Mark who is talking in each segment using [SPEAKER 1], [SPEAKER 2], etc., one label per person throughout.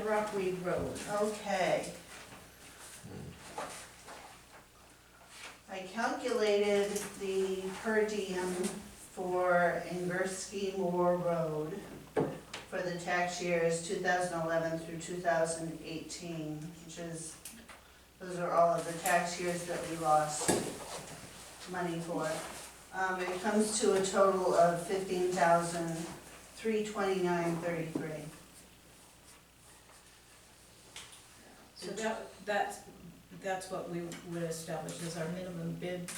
[SPEAKER 1] Rockweed Road.
[SPEAKER 2] Okay. I calculated the per diem for Inversky Moore Road for the tax years two thousand eleven through two thousand eighteen, which is, those are all of the tax years that we lost money for. Um, it comes to a total of fifteen thousand, three twenty-nine, thirty-three.
[SPEAKER 1] So that, that's, that's what we would establish as our minimum bid.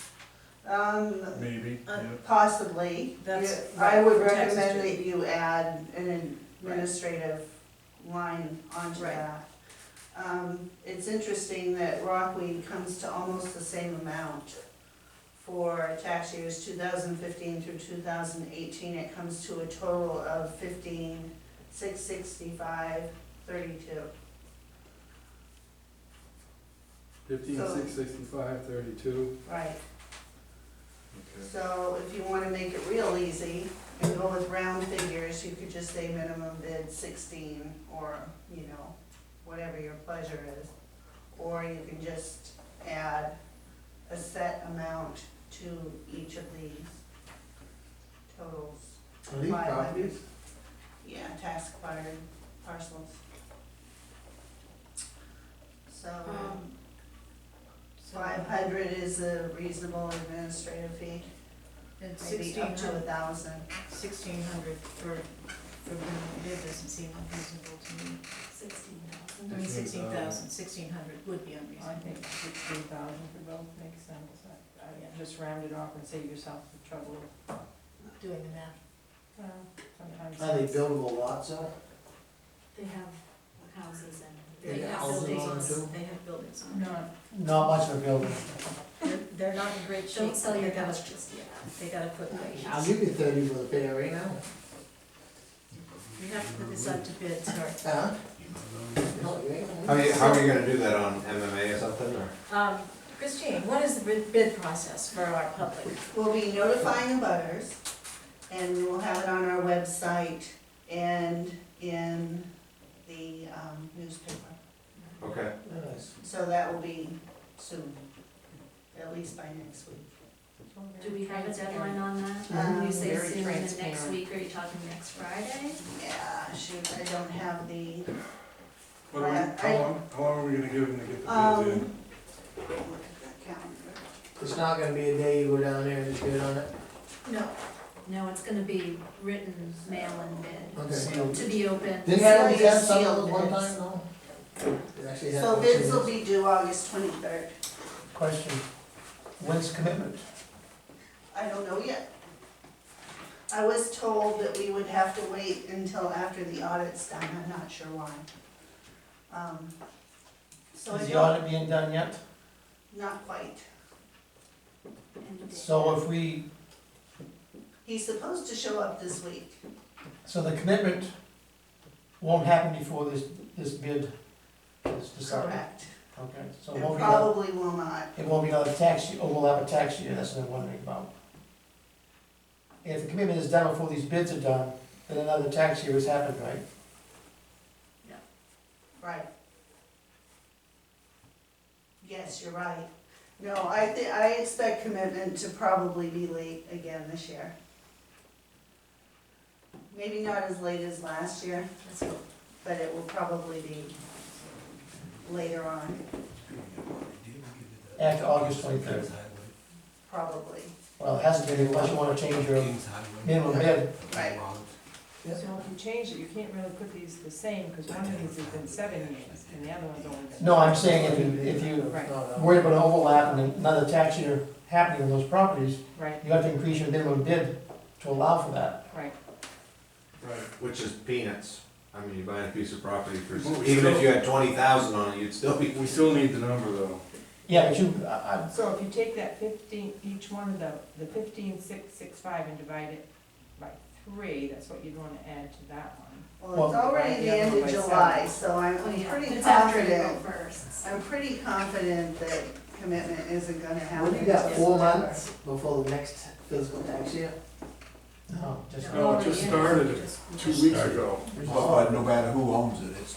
[SPEAKER 2] Um,
[SPEAKER 3] Maybe,
[SPEAKER 1] Uh,
[SPEAKER 3] yeah.
[SPEAKER 2] Possibly.
[SPEAKER 1] That's
[SPEAKER 2] Yeah, I would
[SPEAKER 1] right, for taxes
[SPEAKER 2] recommend
[SPEAKER 1] too.
[SPEAKER 2] that you add an
[SPEAKER 1] Right.
[SPEAKER 2] administrative line onto
[SPEAKER 1] Right.
[SPEAKER 2] that. Um, It's interesting that Rockweed comes to almost the same amount for tax years 2015 through 2018. It comes to a total of 15,665.32.
[SPEAKER 4] Fifteen, six, sixty-five, thirty-two.
[SPEAKER 2] Right.
[SPEAKER 3] Okay.
[SPEAKER 2] So if you wanna make it real easy and go with round figures, you could just say minimum bid sixteen, or, you know, whatever your pleasure is. Or you can just add a set amount to each of these totals.
[SPEAKER 4] Are these
[SPEAKER 2] Five.
[SPEAKER 4] copies?
[SPEAKER 2] Yeah, tax cluttered parcels. So
[SPEAKER 1] Um, so-
[SPEAKER 2] five hundred is a reasonable administrative fee,
[SPEAKER 1] And
[SPEAKER 2] maybe
[SPEAKER 1] sixteen
[SPEAKER 2] up to a
[SPEAKER 1] hundred,
[SPEAKER 2] thousand.
[SPEAKER 1] sixteen hundred for, for minimum bid doesn't seem unreasonable to me.
[SPEAKER 5] Sixteen thousand.
[SPEAKER 1] I mean, sixteen
[SPEAKER 3] 16,000.
[SPEAKER 1] thousand, sixteen hundred would be unreasonable.
[SPEAKER 6] I think sixteen thousand for both makes sense. I- I just round it off and save yourself the trouble.
[SPEAKER 1] Doing the math.
[SPEAKER 6] Well, Sometimes.
[SPEAKER 7] Are they buildable lots though?
[SPEAKER 5] They have houses and.
[SPEAKER 1] They
[SPEAKER 7] Yeah,
[SPEAKER 1] have
[SPEAKER 7] houses on
[SPEAKER 1] buildings
[SPEAKER 7] it too?
[SPEAKER 1] on, they have buildings on. it.
[SPEAKER 6] Not,
[SPEAKER 7] Not much of a building.
[SPEAKER 1] They're, they're not in great shape.
[SPEAKER 5] Don't sell
[SPEAKER 1] but
[SPEAKER 5] your
[SPEAKER 1] they gotta-
[SPEAKER 5] house just yet.
[SPEAKER 1] They gotta put,
[SPEAKER 7] I'll
[SPEAKER 1] we
[SPEAKER 7] give you thirty for the pay right now.
[SPEAKER 1] have to put this up to bid, sorry.
[SPEAKER 7] Huh?
[SPEAKER 8] How are you, how are you gonna do that on MMA or something, or?
[SPEAKER 1] Um, Christine, what is the bid- bid process for our public?
[SPEAKER 2] We'll be notifying the butters, and we will have it on our website and in the um, newspaper.
[SPEAKER 8] Okay,
[SPEAKER 2] So that will be soon, at least by next week.
[SPEAKER 5] Do we have a deadline on that?
[SPEAKER 2] Um,
[SPEAKER 5] When you say
[SPEAKER 6] very
[SPEAKER 5] soon, and next
[SPEAKER 6] transparent.
[SPEAKER 5] week, are you talking next Friday?
[SPEAKER 2] Um, Yeah, shoot, I don't have the,
[SPEAKER 3] What are we,
[SPEAKER 2] I-
[SPEAKER 3] how long, how long are we gonna give them to get the bids in?
[SPEAKER 2] um, look at that calendar.
[SPEAKER 7] It's not gonna be a day you go down there and just bid on it.
[SPEAKER 1] No,
[SPEAKER 5] No, it's gonna be written mail and bid,
[SPEAKER 7] Okay.
[SPEAKER 5] to be open.
[SPEAKER 7] Didn't that only
[SPEAKER 2] It's like
[SPEAKER 7] have some
[SPEAKER 2] sealed
[SPEAKER 7] one
[SPEAKER 2] bids.
[SPEAKER 7] time though? It actually had
[SPEAKER 2] So
[SPEAKER 7] one
[SPEAKER 2] bids will
[SPEAKER 7] sealed.
[SPEAKER 2] be due August twenty-third.
[SPEAKER 9] Question, when's commitment?
[SPEAKER 2] I don't know yet. I was told that we would have to wait until after the audit's done, I'm not sure why. Um, So I
[SPEAKER 9] Is the
[SPEAKER 2] don't,
[SPEAKER 9] audit being done yet?
[SPEAKER 2] not quite.
[SPEAKER 5] and the
[SPEAKER 9] So uh,
[SPEAKER 5] date.
[SPEAKER 9] if we,
[SPEAKER 2] He's supposed to show up this week.
[SPEAKER 9] so the commitment won't happen before this, this bid is decided?
[SPEAKER 2] Correct.
[SPEAKER 9] Okay, so it
[SPEAKER 2] And
[SPEAKER 9] won't be, another-
[SPEAKER 2] probably will not.
[SPEAKER 9] it won't be another tax year, oh, we'll have a tax year, that's what I'm wondering about. If the commitment is done before these bids are done, then another tax year has happened, right?
[SPEAKER 2] Right. Yes, you're right. No, I thi, I expect commitment to probably be late again this year. Maybe not as late as last year,
[SPEAKER 5] Let's go.
[SPEAKER 2] but it will probably be later on,
[SPEAKER 9] After August twenty-third.
[SPEAKER 2] probably.
[SPEAKER 9] Well, it hasn't been, unless you wanna change your minimum bid.
[SPEAKER 2] Right.
[SPEAKER 6] so if you change it, you can't really put these the same, because one of these has been seven years, and the other one's only been.
[SPEAKER 9] No, I'm saying if you, if you
[SPEAKER 6] Right.
[SPEAKER 7] No, no.
[SPEAKER 9] worried about overlap and another tax year happening on those properties,
[SPEAKER 6] Right,
[SPEAKER 9] you have to increase your minimum bid to allow for that.
[SPEAKER 6] right.
[SPEAKER 3] Right,
[SPEAKER 8] which is peanuts, I mean, you buy a piece of property for,
[SPEAKER 3] Well, we
[SPEAKER 8] even if
[SPEAKER 3] still-
[SPEAKER 8] you had twenty thousand on it, you'd still be.
[SPEAKER 3] we still need the number though.
[SPEAKER 9] Yeah, but you, I,
[SPEAKER 6] So if you take that fifteen, each one of the, the fifteen, six, six, five, and divide it by three, that's what you'd wanna add to that one.
[SPEAKER 2] Well, it's already the end of July, so I'm
[SPEAKER 5] Oh, yeah.
[SPEAKER 2] pretty
[SPEAKER 5] It's after
[SPEAKER 2] confident,
[SPEAKER 5] April first.
[SPEAKER 2] I'm pretty confident that commitment isn't gonna happen.
[SPEAKER 7] What do you got,
[SPEAKER 2] until
[SPEAKER 7] four
[SPEAKER 2] September.
[SPEAKER 7] months before the next fiscal tax year?
[SPEAKER 9] I, no, just.
[SPEAKER 3] No, it just started
[SPEAKER 1] Just-
[SPEAKER 3] two weeks ago.
[SPEAKER 4] But
[SPEAKER 8] no matter who owns it, it's